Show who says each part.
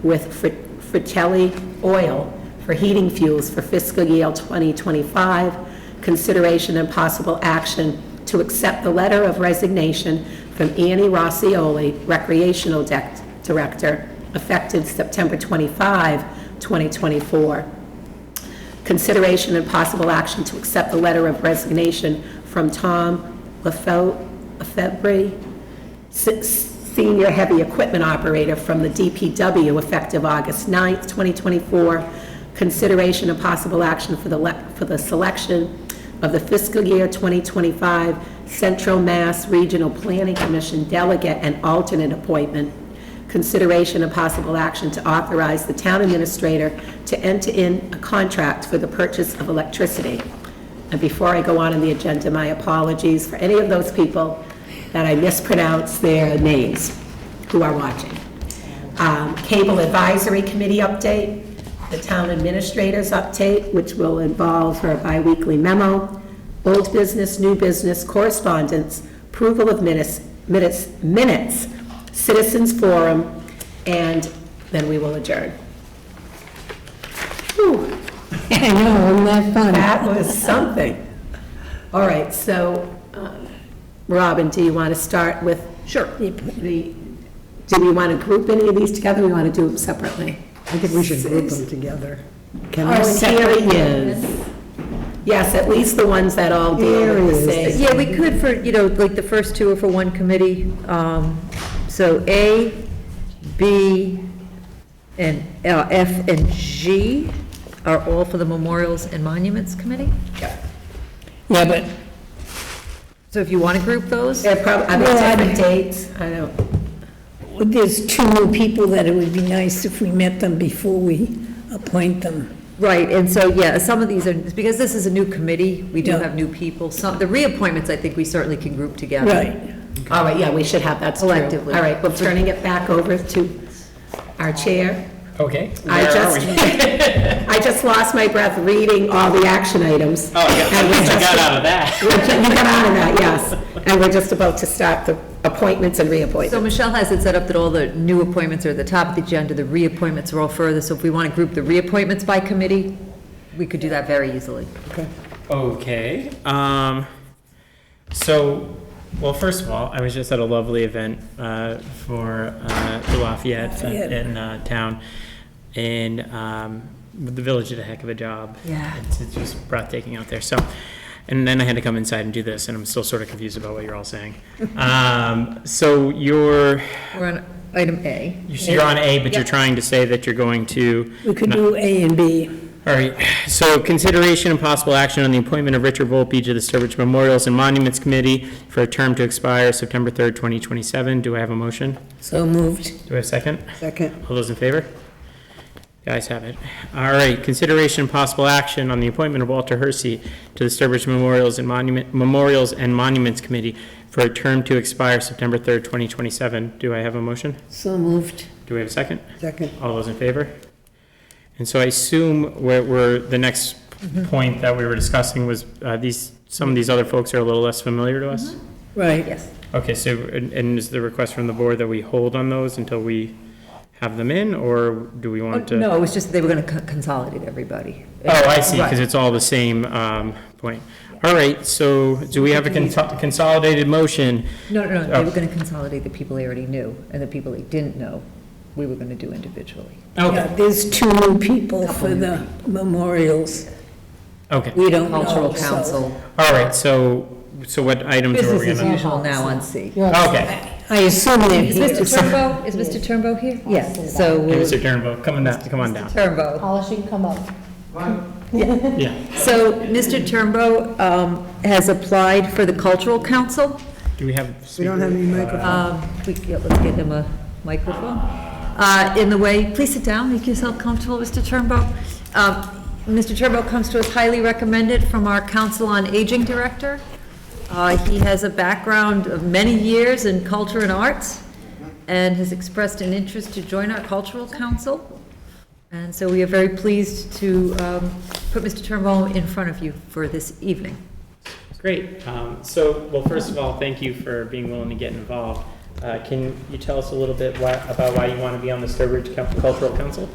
Speaker 1: with Fri- Fratelli Oil for heating fuels for fiscal year 2025. Consideration and possible action to accept the letter of resignation from Annie Rossioli, Recreational Dec- Director, effective September 25, 2024. Consideration and possible action to accept the letter of resignation from Tom Lefev- Lefebvre, se- Senior Heavy Equipment Operator from the DPW effective August 9th, 2024. Consideration and possible action for the, le- for the selection of the fiscal year 2025 Central Mass Regional Planning Commission delegate and alternate appointment. Consideration and possible action to authorize the town administrator to enter in a contract for the purchase of electricity. And before I go on in the agenda, my apologies for any of those people that I mispronounce their names who are watching. Um, Cable Advisory Committee update, the town administrator's update, which will involve her biweekly memo, old business, new business, correspondence, approval of minutes, minutes, minutes, citizens forum, and then we will adjourn. Whew.
Speaker 2: I know, isn't that fun?
Speaker 1: That was something. All right, so, um, Robin, do you want to start with? Sure. The, do we want to group any of these together, or we want to do them separately?
Speaker 2: I think we should group them together. Can
Speaker 1: Oh,
Speaker 2: I
Speaker 1: and
Speaker 2: set?
Speaker 1: here he is. Yes, at least the ones that all deal with the
Speaker 2: Here
Speaker 1: same.
Speaker 3: Yeah, we could for, you know, like the first two are for one committee. um, So A, B, and uh, F and G are all for the Memorials and Monuments Committee.
Speaker 2: Yeah, but,
Speaker 3: So if you want to group those,
Speaker 1: They're probably, are they
Speaker 2: Well, I-
Speaker 1: different dates? I don't,
Speaker 2: there's two new people that it would be nice if we met them before we appoint them.
Speaker 3: right, and so, yeah, some of these are, because this is a new committee, we do
Speaker 2: Yeah.
Speaker 3: have new people. Some, the reappointments, I think we certainly can group together.
Speaker 2: Right.
Speaker 1: all right, yeah, we should have, that's true.
Speaker 3: Collectively.
Speaker 1: All right, we're turning it back over to our chair.
Speaker 4: Okay.
Speaker 1: I
Speaker 4: where are
Speaker 1: just,
Speaker 4: we?
Speaker 1: I just lost my breath reading all the action items.
Speaker 4: Oh, yeah,
Speaker 1: And
Speaker 4: I
Speaker 1: we're
Speaker 4: just
Speaker 1: just-
Speaker 4: got out of that.
Speaker 1: You got out of that, yes. And we're just about to start the appointments and
Speaker 3: So
Speaker 1: reappointments.
Speaker 3: Michelle has it set up that all the new appointments are at the top of the agenda, the reappointments are all further. So if we want to group the reappointments by committee, we could do that very easily.
Speaker 4: Okay. Um, so, well, first of all, I was just at a lovely event uh, for uh, the Lafayette
Speaker 2: Lafayette.
Speaker 4: in uh, town, and um, the village did a heck of a job.
Speaker 3: Yeah.
Speaker 4: It's, it's just breathtaking out there. So, and then I had to come inside and do this, and I'm still sort of confused about what you're all saying. um, so you're
Speaker 3: We're on item A.
Speaker 4: you're on A, but you're
Speaker 3: Yeah.
Speaker 4: trying to say that you're going to
Speaker 2: We could do A and B.
Speaker 4: All right, so consideration and possible action on the appointment of Richard Volpe to the Sturbridge Memorials and Monuments Committee for a term to expire September 3rd, 2027. Do I have a motion?
Speaker 2: So moved.
Speaker 4: Do I have a second?
Speaker 2: Second.
Speaker 4: All those in favor? The ayes have it. All right, consideration and possible action on the appointment of Walter Hersey to the Sturbridge Memorials and Monument, Memorials and Monuments Committee for a term to expire September 3rd, 2027. Do I have a motion?
Speaker 2: So moved.
Speaker 4: Do we have a second?
Speaker 2: Second.
Speaker 4: All those in favor? And so I assume where, where the next
Speaker 3: Mm-hmm.
Speaker 4: point that we were discussing was, uh, these, some of these other folks are a little less familiar to us?
Speaker 3: Mm-hmm.
Speaker 2: Right.
Speaker 3: Yes.
Speaker 4: Okay, so, and, and is the request from the board that we hold on those until we have them in, or do we want to?
Speaker 3: Oh, No, it was just they were going to consolidate everybody.
Speaker 4: Oh, I see,
Speaker 3: Right.
Speaker 4: because it's all the same, um, point. All right, so do we have a conso- consolidated motion?
Speaker 3: No, no, no, they
Speaker 4: Oh.
Speaker 3: were going to consolidate the people they already knew, and the people they didn't know, we were going to do individually.
Speaker 4: Okay,
Speaker 2: Yeah, there's two new people
Speaker 3: Couple
Speaker 2: for
Speaker 3: new
Speaker 2: the memorials.
Speaker 4: okay,
Speaker 2: We don't know.
Speaker 3: Cultural
Speaker 2: so-
Speaker 3: Council,
Speaker 4: all right, so, so what items are
Speaker 3: business
Speaker 4: we
Speaker 3: as
Speaker 4: gonna?
Speaker 3: usual now on C.
Speaker 4: Okay.
Speaker 2: I assume they're
Speaker 3: Is
Speaker 2: here.
Speaker 3: Mr. Turnbow, is Mr. Turnbow here? Yes, so
Speaker 4: Hey,
Speaker 3: we'll,
Speaker 4: Mr. Turnbull, come on down, come on down.
Speaker 3: Turnbow.
Speaker 5: polishing come up.
Speaker 4: Yeah.
Speaker 3: So Mr. Turnbow um, has applied for the Cultural Council.
Speaker 4: Do we have? We
Speaker 6: don't have any microphones.
Speaker 3: Um, we- yeah, Let's get him a microphone. Uh, In the way, please sit down, make yourself comfortable, Mr. Turnbow. Um, Mr. Turnbow comes to us highly recommended from our Council on Aging Director. Uh, He has a background of many years in culture and arts, and has expressed an interest to join our Cultural Council. And so we are very pleased to um, put Mr. Turnbow in front of you for this evening.
Speaker 4: Great. Um, So, well, first of all, thank you for being willing to get involved. Uh, Can you tell us a little bit why- about why you want to be on the Sturbridge Cul- Cultural Council?